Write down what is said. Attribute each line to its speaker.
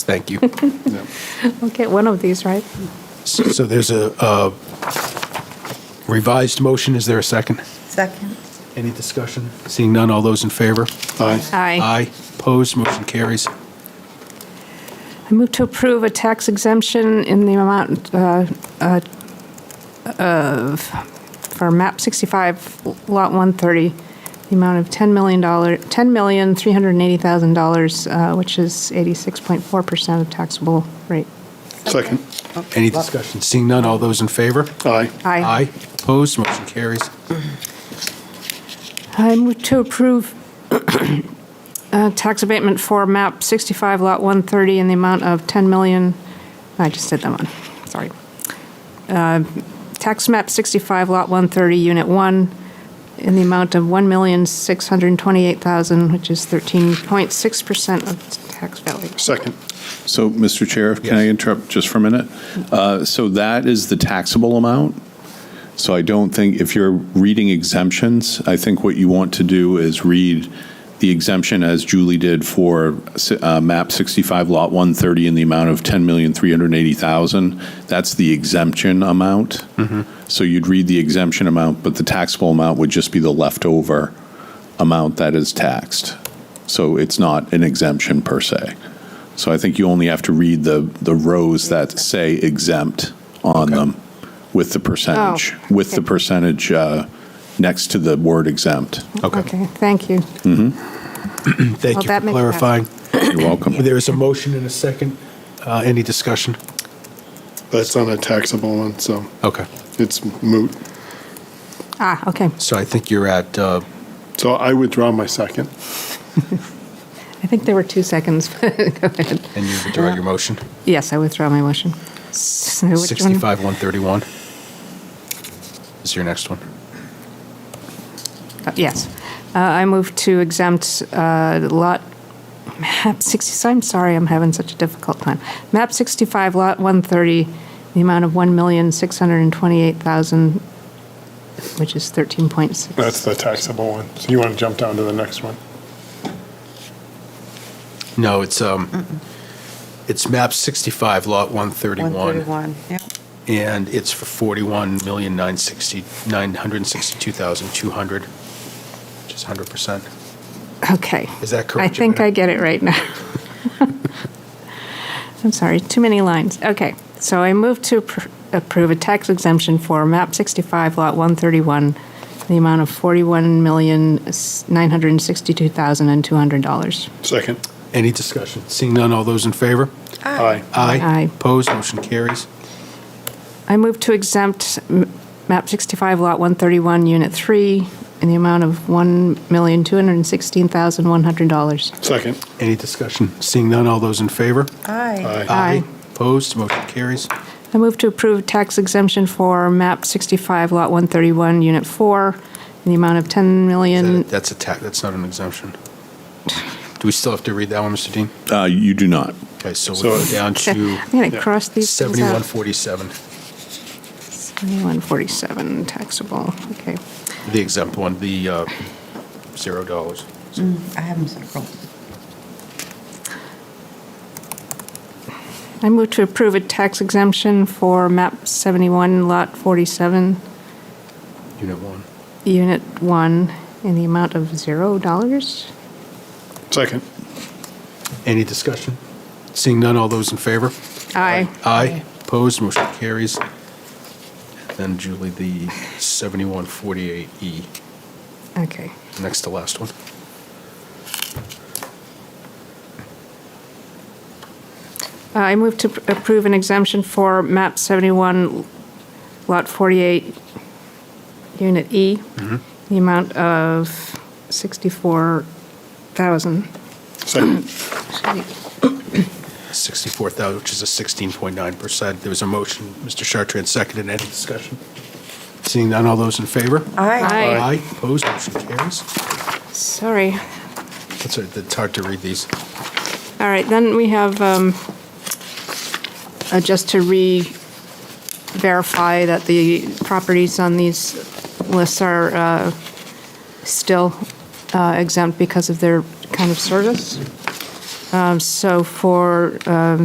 Speaker 1: Thank you.
Speaker 2: We'll get one of these, right?
Speaker 1: So there's a uh, revised motion. Is there a second?
Speaker 3: Second.
Speaker 1: Any discussion? Seeing none, all those in favor? Aye.
Speaker 2: Aye.
Speaker 1: Aye. Opposed, motion carries.
Speaker 2: I move to approve a tax exemption in the amount uh, uh, of, for map 65, lot 130, the amount of $10 million, $10,380,000, uh, which is 86.4% of taxable rate.
Speaker 4: Second.
Speaker 1: Any discussion? Seeing none, all those in favor?
Speaker 4: Aye.
Speaker 2: Aye.
Speaker 1: Aye. Opposed, motion carries.
Speaker 2: I move to approve uh, tax abatement for map 65, lot 130, in the amount of 10 million, I just did that one, sorry. Uh, Tax map 65, lot 130, unit 1, in the amount of 1,628,000, which is 13.6% of tax value.
Speaker 4: Second.
Speaker 5: So, Mr. Chair, can I
Speaker 1: Yes.
Speaker 5: interrupt just for a minute? Uh, So that is the taxable amount. So I don't think, if you're reading exemptions, I think what you want to do is read the exemption as Julie did for uh, map 65, lot 130, in the amount of 10380000 That's the exemption amount. So you'd read the exemption amount, but the taxable amount would just be the leftover amount that is taxed. So it's not an exemption per se. So I think you only have to read the, the rows that say exempt on them with the percentage,
Speaker 2: Oh,
Speaker 5: with the
Speaker 2: okay.
Speaker 5: percentage uh, next to the word exempt.
Speaker 2: Okay, thank you.
Speaker 1: Thank
Speaker 2: Well,
Speaker 1: you for
Speaker 2: that makes sense.
Speaker 1: clarifying.
Speaker 5: You're welcome.
Speaker 1: There is a motion and a second. Uh, Any discussion?
Speaker 4: That's not a taxable one, so
Speaker 1: Okay.
Speaker 4: it's moot.
Speaker 2: Ah, okay,
Speaker 1: So I think you're at, uh,
Speaker 4: So I withdraw my second.
Speaker 2: I think there were two seconds. Go ahead.
Speaker 1: and you withdraw your motion,
Speaker 2: Yes, I withdraw my motion. So which one?
Speaker 1: 65, 131. Is your next one?
Speaker 2: Uh, Yes. Uh, I move to exempt uh, Lot, map 60, I'm sorry, I'm having such a difficult time. Map 65, Lot 130, the amount of 1,628,000, which is 13.6.
Speaker 4: That's the taxable one. So you want to jump down to the next one?
Speaker 1: No, it's, um, it's map 65, lot 131,
Speaker 3: 131, yep.
Speaker 1: and it's for 41,962,200, which is 100%.
Speaker 2: Okay.
Speaker 1: Is that
Speaker 2: I
Speaker 1: correct?
Speaker 2: think I
Speaker 1: Joanna?
Speaker 2: get it right now. I'm sorry, too many lines. Okay, so I move to appro- approve a tax exemption for MAP 65, Lot 131, the amount of $41,962,200.
Speaker 4: Second.
Speaker 1: Any discussion? Seeing none, all those in favor?
Speaker 4: Aye.
Speaker 2: Aye.
Speaker 1: Opposed, motion carries.
Speaker 2: I move to exempt m- MAP 65, Lot 131, Unit 3, in the amount of $1,216,100.
Speaker 4: Second.
Speaker 1: Any discussion? Seeing none, all those in favor?
Speaker 3: Aye.
Speaker 4: Aye.
Speaker 1: Opposed, motion carries.
Speaker 2: I move to approve tax exemption for MAP 65, Lot 131, Unit 4, in the amount of 10
Speaker 1: Is
Speaker 2: million.
Speaker 1: that- That's a tax, that's not an exemption. Do we still have to read that one, Mr. Dean?
Speaker 5: Uh, You do not.
Speaker 1: Okay, so
Speaker 4: So-
Speaker 1: we're going down to
Speaker 2: I'm going to cross these things out.
Speaker 1: 7147,
Speaker 2: 7147 taxable, okay.
Speaker 1: the exempt one, the uh, $0. dollars.
Speaker 3: I have them circled.
Speaker 2: I move to approve a tax exemption for MAP 71, Lot 47,
Speaker 1: Unit 1.
Speaker 2: Unit 1, in the amount of $0.
Speaker 4: Second.
Speaker 1: Any discussion? Seeing none, all those in favor?
Speaker 2: Aye.
Speaker 1: Aye. Opposed, motion carries. Then Julie, the 7148E,
Speaker 2: Okay.
Speaker 1: next to last one.
Speaker 2: Uh, I move to pr- approve an exemption for MAP 71, Lot 48, Unit E, the amount of 64,000.
Speaker 4: Second.
Speaker 1: 64,000, which is a 16.9%. There was a motion, Mr. Chartrand seconded, any discussion? Seeing none, all those in favor?
Speaker 3: Aye.
Speaker 2: Aye.
Speaker 1: Aye, opposed, motion carries.
Speaker 2: Sorry.
Speaker 1: That's, a- it's hard to read these.
Speaker 2: All right, then we have, um, uh, just to re-verify that the properties on these lists are uh, still uh, exempt because of their kind of service. Um, So for um,